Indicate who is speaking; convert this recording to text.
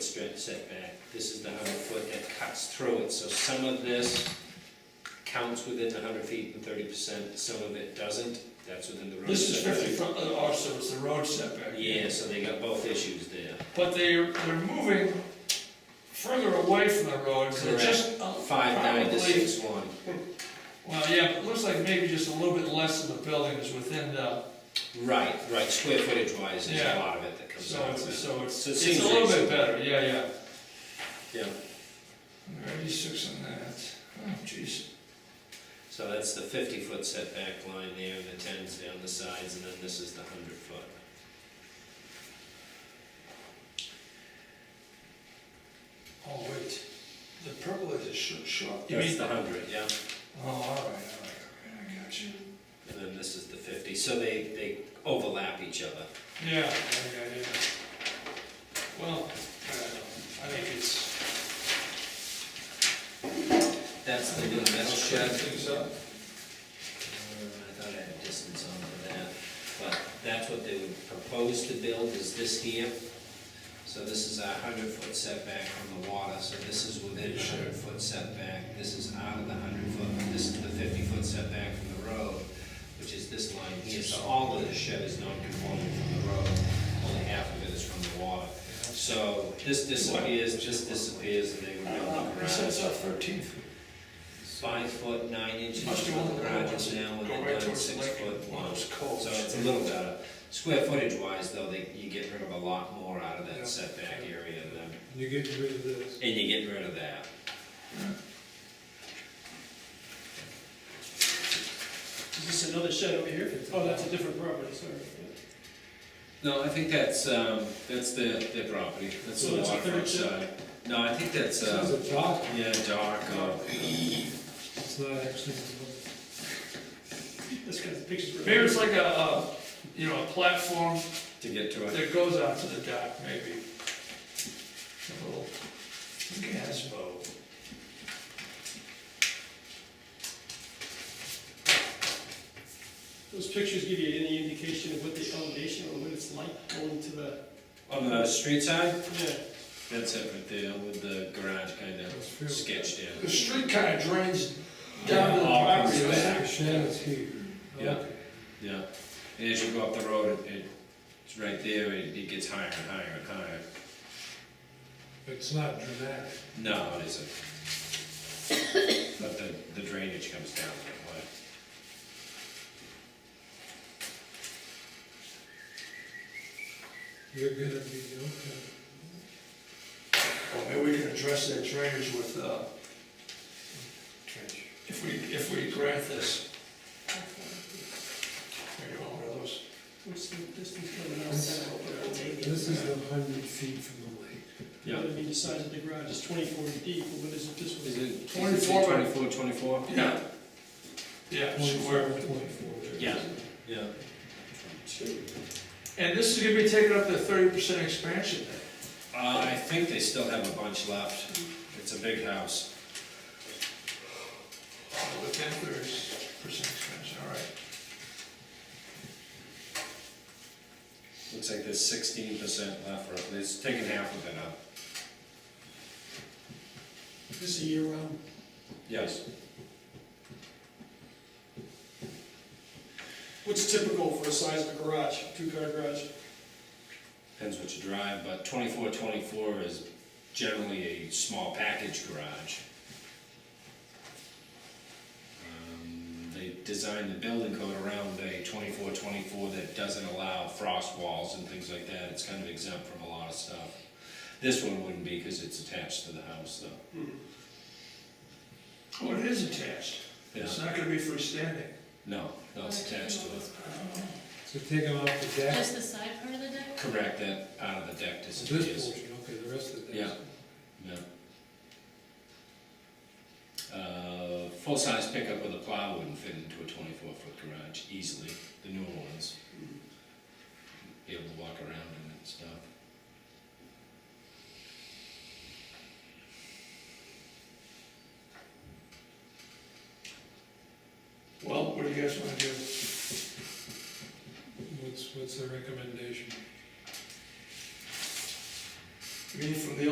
Speaker 1: straight setback, this is the hundred foot that cuts through it, so some of this counts within the hundred feet and thirty percent, some of it doesn't, that's within the road.
Speaker 2: This is
Speaker 1: setback.
Speaker 2: fifty foot, uh, oh, so it's the road setback.
Speaker 1: Yeah, so they got both issues there.
Speaker 2: But they're, they're moving further away from the road, so
Speaker 1: Correct.
Speaker 2: just. uh,
Speaker 1: Five nine to
Speaker 2: probably-
Speaker 1: six one.
Speaker 2: Well, yeah, but it looks like maybe just a little bit less of the building is within the,
Speaker 1: Right, right, square footage wise, there's a
Speaker 2: Yeah.
Speaker 1: lot of it that comes
Speaker 2: so
Speaker 1: out
Speaker 2: it's,
Speaker 1: of it.
Speaker 2: so it's,
Speaker 1: So it
Speaker 2: it's
Speaker 1: seems
Speaker 2: a little
Speaker 1: reasonable.
Speaker 2: bit better, yeah, yeah.
Speaker 1: Yeah,
Speaker 2: Ninety-six on that, oh, jeez.
Speaker 1: so that's the fifty foot setback line there, and the tens down the sides, and then this is the hundred foot.
Speaker 2: Oh, wait, the purple is a short, short. You
Speaker 1: That's
Speaker 2: mean,
Speaker 1: the hundred, yeah,
Speaker 2: oh, all right, all right, all right, I got you.
Speaker 1: and then this is the fifty, so they, they overlap each other.
Speaker 2: Yeah, yeah, yeah, yeah. Well, I don't know, I think it's,
Speaker 1: That's the new metal
Speaker 3: Yeah, I
Speaker 1: shed.
Speaker 3: think so.
Speaker 1: Uh, I thought I had distance on for that, but that's what they would propose to build, is this here. So this is a hundred foot setback from the water, so this is within a hundred foot setback, this is out of the hundred foot, but this is the fifty foot setback from the road, which is this line here, so all of the shed is non-conforming from the road, only half of it is from the water. So this disappears, just disappears, and they would
Speaker 2: I
Speaker 1: build
Speaker 2: don't know,
Speaker 1: the
Speaker 2: it
Speaker 1: garage.
Speaker 2: says uh, thirteen feet.
Speaker 1: Five foot nine inches
Speaker 2: Must be
Speaker 1: for
Speaker 2: one
Speaker 1: the
Speaker 2: of the
Speaker 1: garage
Speaker 2: ones
Speaker 1: is
Speaker 2: that
Speaker 1: now, and
Speaker 2: go
Speaker 1: then
Speaker 2: right
Speaker 1: nine
Speaker 2: towards the
Speaker 1: six
Speaker 2: lake,
Speaker 1: foot
Speaker 2: one
Speaker 1: one.
Speaker 2: of those coves.
Speaker 1: So it's a little better. Square footage wise, though, they, you get rid of a lot more out of
Speaker 2: Yeah.
Speaker 1: that setback area than,
Speaker 3: You're getting rid of this.
Speaker 1: and you get rid of that.
Speaker 4: Is this another shed over here? Oh, that's a different property, sorry.
Speaker 1: No, I think that's, um, that's their, their property. That's
Speaker 4: So
Speaker 1: the
Speaker 4: that's a
Speaker 1: waterfront
Speaker 4: third ship?
Speaker 1: side. No, I think that's,
Speaker 3: This
Speaker 1: uh,
Speaker 3: is a dock,
Speaker 1: yeah, dock, uh,
Speaker 3: it's not actually,
Speaker 4: This guy's pictures. were-
Speaker 2: Maybe it's like a, uh, you know, a platform
Speaker 1: to get to it.
Speaker 2: that goes out to the dock, maybe. A little gas boat.
Speaker 4: Those pictures give you any indication of what the elevation or what it's like going to the,
Speaker 1: On the street side,
Speaker 4: yeah.
Speaker 1: that's it right there with the garage kind
Speaker 3: it's
Speaker 1: of
Speaker 3: filled.
Speaker 1: sketched in.
Speaker 2: The street kind of drains down to the property.
Speaker 1: Yeah.
Speaker 2: right?
Speaker 3: The shed is here.
Speaker 1: Yeah.
Speaker 3: Okay.
Speaker 1: Yeah, and as you go up the road, it- it, it's right there, it, it gets higher and higher and higher.
Speaker 3: It's not dramatic.
Speaker 1: No, it isn't. But the, the drainage comes down that way.
Speaker 3: You're gonna be, okay.
Speaker 2: Well, maybe we can address that drainage with, uh, if we, if we grant this. There you go, one of those.
Speaker 4: What's the distance from the outside over there?
Speaker 3: This is the hundred feet from the lake.
Speaker 4: I mean, the size of the garage is twenty-four deep, but what is it this
Speaker 1: Is
Speaker 4: one?
Speaker 1: it?
Speaker 2: 24 by-
Speaker 1: Twenty-four, twenty-four?
Speaker 2: Yeah. Yeah,
Speaker 3: Twenty-four,
Speaker 2: square.
Speaker 3: twenty-four.
Speaker 1: Yeah. Yeah.
Speaker 2: And this is gonna be taking up the thirty percent expansion then?
Speaker 1: Uh, I think they still have a bunch left. It's a big house.
Speaker 2: Within thirty percent expansion, all right.
Speaker 1: Looks like there's sixteen percent left, roughly. It's taken half of it up.
Speaker 4: This a year round?
Speaker 1: Yes.
Speaker 4: What's typical for the size of a garage, two-car garage?
Speaker 1: Depends what you drive, but twenty-four, twenty-four is generally a small package garage. Um, They designed the building code around a twenty-four, twenty-four that doesn't allow frost walls and things like that, it's kind of exempt from a lot of stuff. This one wouldn't be, because it's attached to the house, though.
Speaker 2: Oh, it is attached. It's not gonna be freestanding.
Speaker 1: No, no, it's attached to it.
Speaker 3: So take them off the deck,
Speaker 5: Just the side part of the deck?
Speaker 1: Correct, that out of the deck
Speaker 3: this
Speaker 1: disappears.
Speaker 3: portion, okay, the rest of the deck.
Speaker 1: Yeah. Yeah. Uh, full-size pickup with a plow wouldn't fit into a twenty-four foot garage easily, the newer ones. Be able to walk around in it and stuff.
Speaker 2: Well, what do you guys wanna do?
Speaker 3: What's, what's the recommendation?
Speaker 2: You mean from the